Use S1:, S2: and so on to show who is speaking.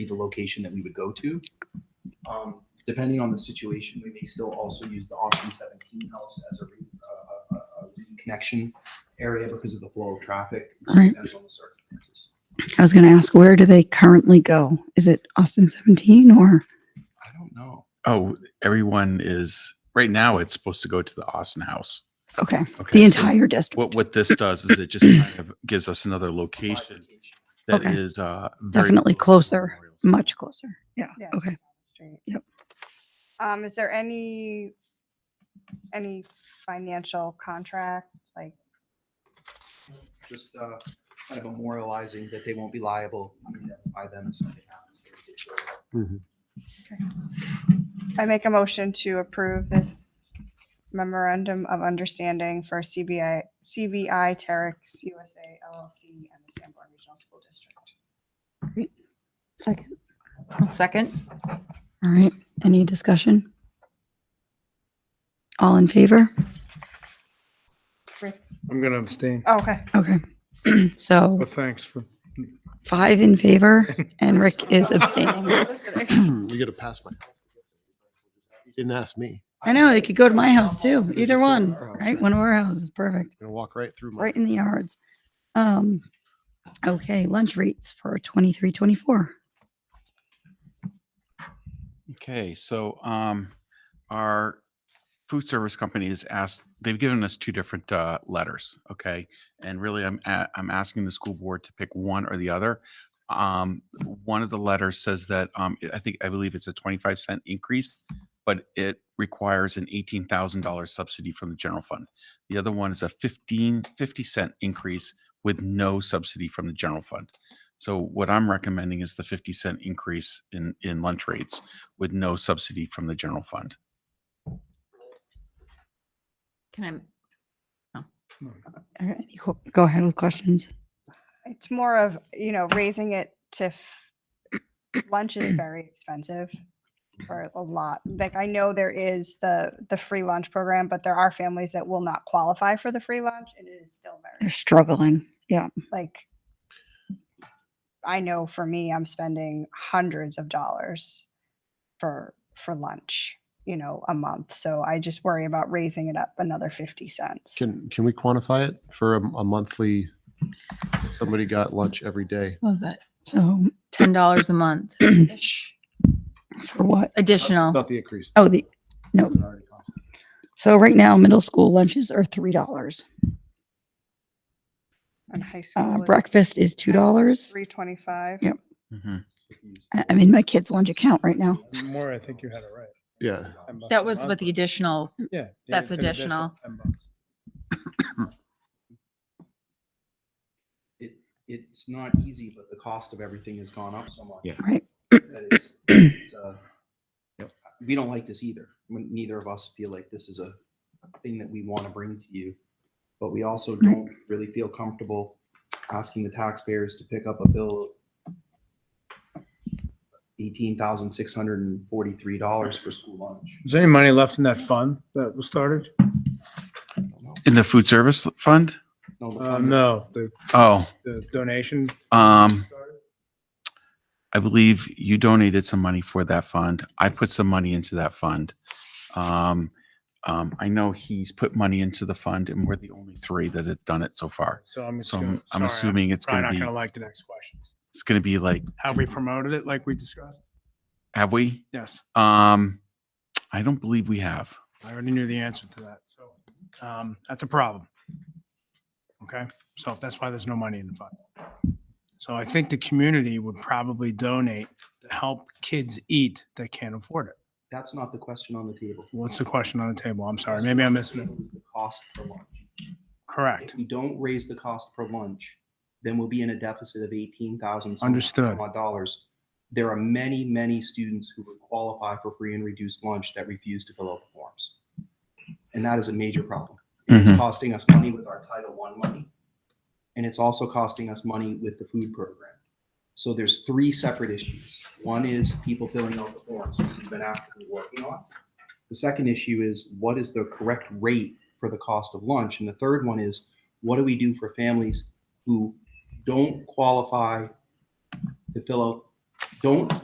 S1: be the location that we would go to. Um, Depending on the situation, we may still also use the Austin 17 house as a re- uh, uh, uh, reconnection area because of the flow of traffic. It just
S2: Right.
S1: Depends on the circumstances.
S2: I was going to ask, where do they currently go? Is it Austin 17 or?
S1: I don't know.
S3: Oh, everyone is right now. It's supposed to go to the Austin House.
S2: Okay,
S3: Okay,
S2: the
S3: so
S2: entire district.
S3: What what this does is it just kind of gives us another location that is
S2: Okay.
S3: uh, very
S2: Definitely
S3: close to
S2: closer,
S3: Memorial Site.
S2: much closer. Yeah.
S4: Yeah, it's
S2: Okay.
S4: down the street.
S2: Yep.
S4: Um, is there any, any financial contract, like,
S1: Just uh, kind of memorializing that they won't be liable I mean, by them if something happens.
S4: I make a motion to approve this memorandum of understanding for CBI, CBI Terex USA LLC and the Sanborn Regional School District.
S2: Second.
S5: Second?
S2: All right. Any discussion? All in favor?
S6: I'm going to abstain,
S4: Oh, Okay,
S2: Okay. So
S6: but thanks for.
S2: five in favor and Rick is abstaining.
S7: You gotta pass my. You didn't ask me.
S2: I know, they could go to my house too, either
S7: just go to
S2: one,
S7: our house.
S2: right? One of our houses, perfect,
S7: You're gonna walk right through my.
S2: right in the yards. Um, okay, lunch rates for twenty-three, twenty-four.
S3: Okay, so um, our food service company has asked, they've given us two different uh, letters, okay? And really, I'm, a- I'm asking the school board to pick one or the other. Um, one of the letters says that, um, I think, I believe it's a 25 cent increase, but it requires an $18,000 subsidy from the general fund. The other one is a 15, 50 cent increase with no subsidy from the general fund. So what I'm recommending is the 50 cent increase in, in lunch rates with no subsidy from the general fund.
S5: Can
S2: All right, any qu- Go ahead with questions.
S4: it's more of, you know, raising it to, f- lunch is very expensive for a lot. Like, I know there is the, the free lunch program, but there are families that will not qualify for the free lunch and it is still very
S2: They're struggling. Mm.
S4: like I know for me, I'm spending hundreds of dollars for for lunch, you know, a month. So I just worry about raising it up another fifty cents.
S7: Can, can we quantify it for a, a monthly? if Somebody got lunch every day.
S5: What was that?
S2: So
S5: Ten dollars a month
S2: for what?
S5: additional.
S7: Not the increase.
S2: Oh, the, no.
S7: It's already cost.
S2: so right now, middle school lunches are three dollars.
S4: And high
S2: Uh,
S4: school
S2: breakfast is two dollars.
S4: three twenty five.
S2: Yep. I, I'm in my kid's lunch account right now.
S6: More, I think you had it right.
S7: Yeah.
S6: 10 bucks
S5: That
S6: a
S5: was
S6: month.
S5: with the additional.
S6: Yeah, yeah.
S5: that's
S6: it's an
S5: additional.
S6: 10 bucks.
S1: It, it's not easy, but the cost of everything has gone up so much.
S3: Yeah.
S2: Right.
S1: that it's, it's uh,
S3: Yep.
S1: we don't like this either. When neither of us feel like this is a thing that we want to bring to you, but we also
S2: Right.
S1: don't really feel comfortable asking the taxpayers to pick up a bill eighteen thousand six hundred and forty-three dollars for school lunch.
S6: Is there any money left in that fund that was started?
S1: I don't know.
S3: In the food service fund?
S1: No, the
S6: Uh,
S1: fund-
S6: no, the,
S3: Oh,
S6: the donation.
S3: um, I believe you donated some money for that fund. I put some money into that fund. Um, um, I know he's put money into the fund and we're the only three that have done it so far.
S6: So I'm
S3: So
S6: assuming.
S3: I'm, I'm assuming it's
S6: Probably
S3: gonna
S6: not
S3: be,
S6: going to like the next questions.
S3: it's gonna be like,
S6: Have we promoted it like we discussed?
S3: have we?
S6: Yes,
S3: Um, I don't believe we have.
S6: I already knew the answer to that. So, um, that's a problem. Okay, so that's why there's no money in the fund. So I think the community would probably donate to help kids eat that can't afford it.
S1: That's not the question on the table.
S6: What's the question on the table? I'm sorry, maybe I'm missing it.
S1: It was the cost per lunch.
S6: Correct.
S1: If we don't raise the cost per lunch, then we'll be in a deficit of eighteen thousand.
S6: Understood.
S1: Dollars. There are many, many students who would qualify for free and reduced lunch that refuse to fill out the forms. And that is a major problem. And It's
S3: Mhm.
S1: costing us money with our Title I money. And it's also costing us money with the food program. So there's three separate issues. One is people filling out the forms, which we've been actively working on. The second issue is what is the correct rate for the cost of lunch? And the third one is what do we do for families who don't qualify to fill out Don't